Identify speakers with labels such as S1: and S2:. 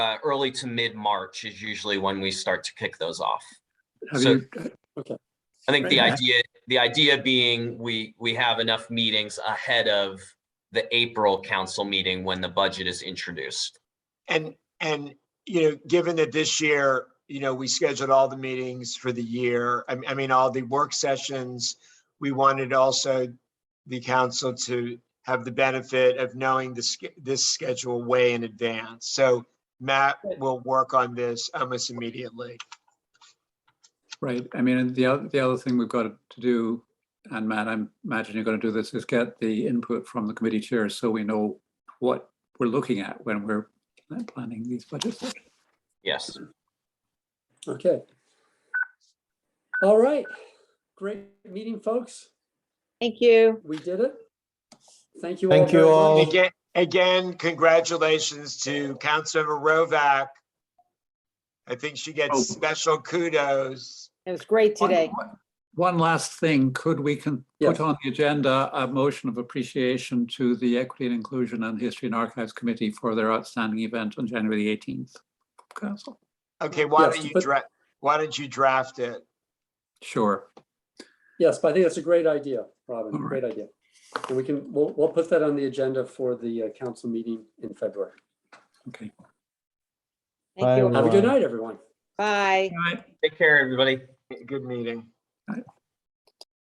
S1: uh, early to mid-March is usually when we start to kick those off.
S2: Have
S1: So-
S2: you,
S1: I think the
S2: Right.
S1: idea, the idea being we, we have enough meetings ahead of the April council meeting when the budget is introduced.
S3: And, and, you know, given that this year, you know, we scheduled all the meetings for the year, I, I mean, all the work sessions, we wanted also the council to have the benefit of knowing this, this schedule way in advance. So Matt will work on this almost immediately.
S2: right, I mean, and the other, the other thing we've got to do, and Matt, I imagine you're going to do this, is get the input from the committee chairs so we know what we're looking at when we're planning these budgets.
S1: Yes.
S4: Okay. All right. Great meeting, folks.
S5: Thank you.
S4: We did it. Thank you.
S6: Thank you
S4: very much.
S6: all.
S3: Again, again, congratulations to Councilmember Rovak. I think she
S2: Oh.
S3: gets special kudos.
S5: It was great
S2: One-
S5: today.
S2: one- One last thing, could we can
S4: Yes.
S2: put on the agenda a motion of appreciation to the Equity and Inclusion and History and Archives Committee for their outstanding event on January eighteenth? Council,
S3: Okay, why
S4: Yes,
S3: don't you
S4: but-
S3: draft, why don't you draft it?
S2: sure,
S4: Yes, but I think that's a great idea, Robin.
S2: All right.
S4: Great idea. And we can, we'll, we'll put that on the agenda for the uh, council meeting in February.
S2: okay.
S5: Thank you.
S4: Have a
S5: all.
S4: good night, everyone.
S5: Bye.
S2: All right.
S1: Take care, everybody.
S3: Good meeting.